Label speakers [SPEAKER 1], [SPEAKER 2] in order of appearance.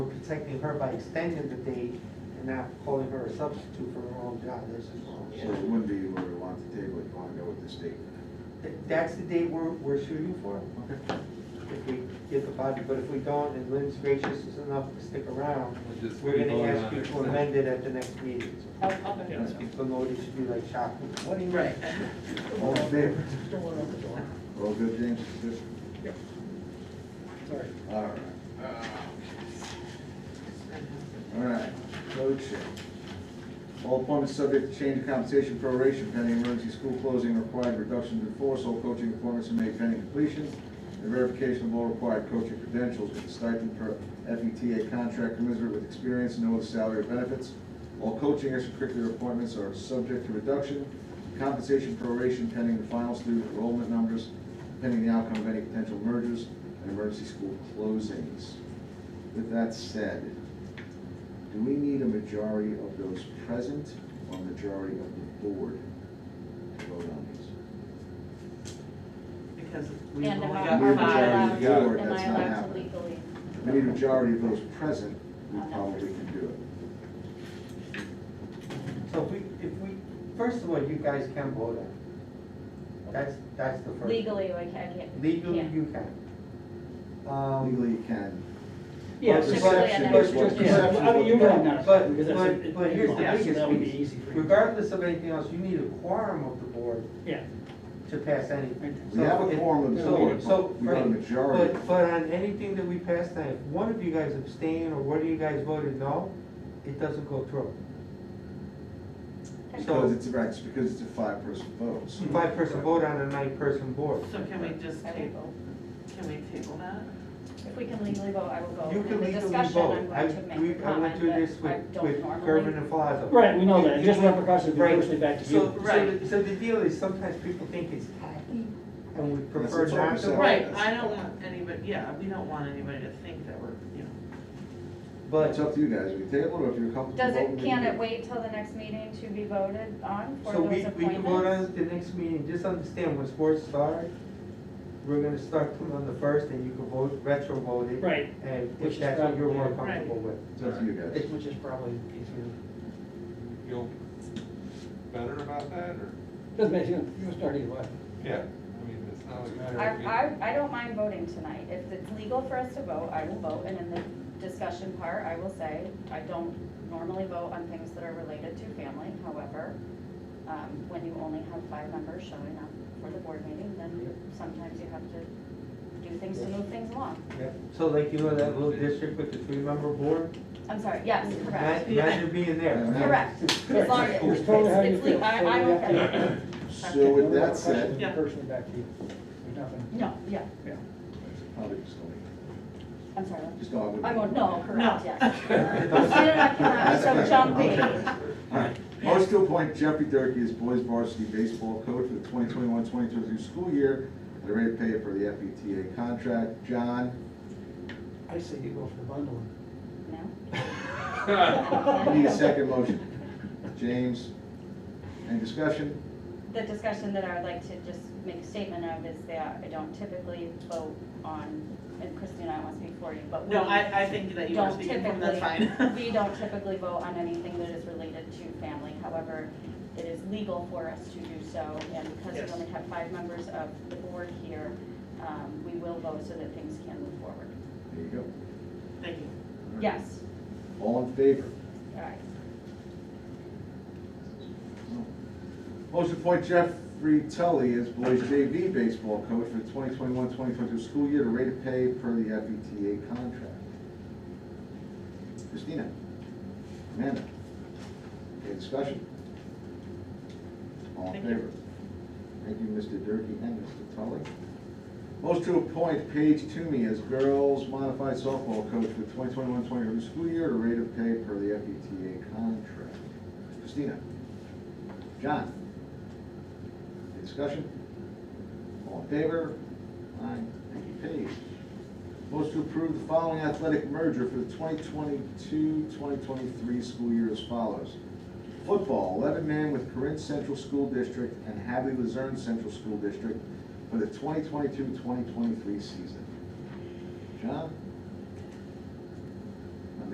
[SPEAKER 1] protecting her by extending the date and not calling her a substitute for her own job, this is wrong.
[SPEAKER 2] So it wouldn't be where we want to table it, you wanna go with this date.
[SPEAKER 1] Th- That's the date we're, we're shooting for,
[SPEAKER 2] Okay.
[SPEAKER 1] if we get the body, but if we don't, and Lynn's gracious enough to stick around,
[SPEAKER 3] We'll just
[SPEAKER 1] we're gonna
[SPEAKER 3] vote
[SPEAKER 1] ask
[SPEAKER 3] on
[SPEAKER 1] you
[SPEAKER 3] it.
[SPEAKER 1] to amend it at the next meeting.
[SPEAKER 4] I'll, I'll bet.
[SPEAKER 3] Yeah.
[SPEAKER 1] So nobody should be like shocked, what do you mean?
[SPEAKER 4] Right.
[SPEAKER 2] All in favor?
[SPEAKER 5] Don't want to open the door.
[SPEAKER 2] All good, James, Yes.
[SPEAKER 5] Sorry.
[SPEAKER 2] All right. All right, road check. All appointments subject to change of compensation proration pending emergency school closing required reduction in force. All coaching appointments are made pending completion. And verification of all required coaching credentials with stipend per FETA contract commensurate with experience, no other salary or benefits. All coaching extracurricular appointments are subject to reduction. Compensation proration pending the final student enrollment numbers, pending the outcome of any potential mergers and emergency school closings. With that said, do we need a majority of those present or a majority of the board to vote on these?
[SPEAKER 6] Because we
[SPEAKER 4] And
[SPEAKER 6] only
[SPEAKER 4] am I
[SPEAKER 6] got
[SPEAKER 2] We're
[SPEAKER 4] am I
[SPEAKER 2] allowed-
[SPEAKER 6] five.
[SPEAKER 2] Yeah,
[SPEAKER 4] allowed, am
[SPEAKER 2] that's
[SPEAKER 4] I
[SPEAKER 2] not
[SPEAKER 4] allowed to
[SPEAKER 2] happening.
[SPEAKER 4] legally?
[SPEAKER 2] If we need a majority of those present, we probably can do it.
[SPEAKER 1] So if we, if we, first of all, you guys can vote on it. That's, that's the first.
[SPEAKER 4] Legally, like, I can't.
[SPEAKER 1] Legally,
[SPEAKER 4] yeah.
[SPEAKER 1] you can. Um,
[SPEAKER 2] Legally, you can.
[SPEAKER 5] Yeah,
[SPEAKER 2] But
[SPEAKER 5] so-
[SPEAKER 4] Typically,
[SPEAKER 2] perception
[SPEAKER 4] I never-
[SPEAKER 2] is what
[SPEAKER 5] Yeah,
[SPEAKER 2] perception
[SPEAKER 5] I mean,
[SPEAKER 2] is
[SPEAKER 5] you
[SPEAKER 2] what-
[SPEAKER 5] know now,
[SPEAKER 1] But-
[SPEAKER 5] because that's
[SPEAKER 1] but-
[SPEAKER 5] it-
[SPEAKER 1] but
[SPEAKER 5] it-
[SPEAKER 1] here's the
[SPEAKER 5] yeah, so
[SPEAKER 1] biggest
[SPEAKER 5] That would be
[SPEAKER 1] piece.
[SPEAKER 5] easy for you.
[SPEAKER 1] Regardless of anything else, you need a quorum of the board
[SPEAKER 5] Yeah.
[SPEAKER 1] to pass anything.
[SPEAKER 2] We have a quorum of the
[SPEAKER 1] So-
[SPEAKER 2] board,
[SPEAKER 1] so-
[SPEAKER 2] but we got a majority.
[SPEAKER 1] But, but on anything that we pass tonight, if one of you guys abstain or one of you guys voted no, it doesn't go through.
[SPEAKER 2] Because it's, right, it's because it's a five-person vote.
[SPEAKER 1] It's
[SPEAKER 2] so-
[SPEAKER 1] a five-person vote on a nine-person board.
[SPEAKER 6] So can we just
[SPEAKER 4] I will
[SPEAKER 6] table,
[SPEAKER 4] vote.
[SPEAKER 6] can we table that?
[SPEAKER 4] If we can legally vote, I will go.
[SPEAKER 1] You can
[SPEAKER 4] In the
[SPEAKER 1] legally
[SPEAKER 4] discussion,
[SPEAKER 1] vote.
[SPEAKER 4] I'm
[SPEAKER 1] I,
[SPEAKER 4] going to make
[SPEAKER 1] we, I
[SPEAKER 4] a
[SPEAKER 1] went
[SPEAKER 4] comment,
[SPEAKER 1] through
[SPEAKER 4] but
[SPEAKER 1] this
[SPEAKER 4] I
[SPEAKER 1] with,
[SPEAKER 4] don't
[SPEAKER 1] with
[SPEAKER 4] normally.
[SPEAKER 1] Gervin and Flazzo.
[SPEAKER 5] Right, we know that,
[SPEAKER 1] You-
[SPEAKER 5] just
[SPEAKER 1] you-
[SPEAKER 5] repercussions,
[SPEAKER 1] right.
[SPEAKER 5] unfortunately, back to
[SPEAKER 1] So-
[SPEAKER 5] you.
[SPEAKER 1] So,
[SPEAKER 6] Right.
[SPEAKER 1] the- so the deal is sometimes people think it's tacky and we prefer
[SPEAKER 2] That's what
[SPEAKER 1] not
[SPEAKER 2] we
[SPEAKER 1] to.
[SPEAKER 2] said.
[SPEAKER 1] vote.
[SPEAKER 6] Right, I don't want anybody, yeah, we don't want anybody to think that we're, you know,
[SPEAKER 2] But it's
[SPEAKER 1] But, uh,
[SPEAKER 2] up to you guys, we table it, or if you're comfortable.
[SPEAKER 4] Does
[SPEAKER 2] voting,
[SPEAKER 4] it,
[SPEAKER 2] we
[SPEAKER 4] can
[SPEAKER 2] do
[SPEAKER 4] it wait till the next meeting to be voted on for
[SPEAKER 1] so
[SPEAKER 4] those
[SPEAKER 1] we,
[SPEAKER 4] appointments?
[SPEAKER 1] we can vote on it the next meeting, just understand when sports start, we're gonna start them on the first and you can vote, retro vote it.
[SPEAKER 5] Right.
[SPEAKER 1] And
[SPEAKER 5] Which
[SPEAKER 1] if
[SPEAKER 5] is
[SPEAKER 1] that's what you're more
[SPEAKER 5] probably-
[SPEAKER 1] comfortable with.
[SPEAKER 2] It's up to you guys.
[SPEAKER 5] Which is probably easier.
[SPEAKER 3] Feel better about that, or,
[SPEAKER 5] Doesn't matter, you you can start either way.
[SPEAKER 3] yeah, I mean, it's not like.
[SPEAKER 5] I-
[SPEAKER 4] I, I, I don't mind voting tonight. If it's legal for us to vote, I will vote, and in the discussion part, I will say, I don't normally vote on things that are related to family, however, um, when you only have five members showing up for the board meeting, then sometimes you have to do things to move things along.
[SPEAKER 1] Yeah. So like, you know, that little district with the three-member board?
[SPEAKER 4] I'm sorry, yes, correct,
[SPEAKER 1] Ima- Imagine being there.
[SPEAKER 4] correct. As long as,
[SPEAKER 5] It's
[SPEAKER 4] it's,
[SPEAKER 5] totally how you
[SPEAKER 4] it's
[SPEAKER 5] feel.
[SPEAKER 4] legal, I, I'm
[SPEAKER 5] Totally up to you.
[SPEAKER 4] okay.
[SPEAKER 2] So with
[SPEAKER 5] No
[SPEAKER 2] that
[SPEAKER 5] repercussions,
[SPEAKER 2] said,
[SPEAKER 6] Yeah.
[SPEAKER 5] Personally, back to you. There's nothing.
[SPEAKER 4] No, yeah,
[SPEAKER 5] Yeah.
[SPEAKER 2] probably just going,
[SPEAKER 4] I'm sorry.
[SPEAKER 2] just go.
[SPEAKER 4] I'm, a- no, correct,
[SPEAKER 6] No.
[SPEAKER 4] yes. I cannot, so jumping.
[SPEAKER 2] Most to appoint Jeffrey Durkey as boys varsity baseball coach for the 2021-2022 school year at a rate of pay for the FETA contract. John,
[SPEAKER 5] I say you go for the bundle.
[SPEAKER 4] No?
[SPEAKER 2] I need a second motion. James, any discussion?
[SPEAKER 4] The discussion that I would like to just make a statement of is that I don't typically vote on, and Christine, I want to speak for you, but we
[SPEAKER 6] no, I, I think that you were
[SPEAKER 4] don't
[SPEAKER 6] speaking from, that's fine.
[SPEAKER 4] typically, we don't typically vote on anything that is related to family. However, it is legal for us to do so, and because
[SPEAKER 5] Yes.
[SPEAKER 4] we only have five members of the board here, um, we will vote so that things can move forward.
[SPEAKER 2] There you go.
[SPEAKER 6] Thank you.
[SPEAKER 4] Yes,
[SPEAKER 2] All in favor?
[SPEAKER 4] all right.
[SPEAKER 2] Motion to appoint Jeffrey Tully as boys JV baseball coach for the 2021-2022 school year at a rate of pay per the FETA contract. Christina? Amanda? Any discussion? All in
[SPEAKER 6] Thank you.
[SPEAKER 2] favor? Thank you, Mr. Durkey and Mr. Tully. Motion to appoint Paige Toomey as girls modified softball coach for the 2021-2022 school year at a rate of pay per the FETA contract. Christina? John? Any discussion? All in favor? Aye. Thank you, Paige. Motion to approve the following athletic merger for the 2022-2023 school year as follows. Football, 11-man with Corinth Central School District and Hadley Luzerne Central School District for the 2022-2023 season. John?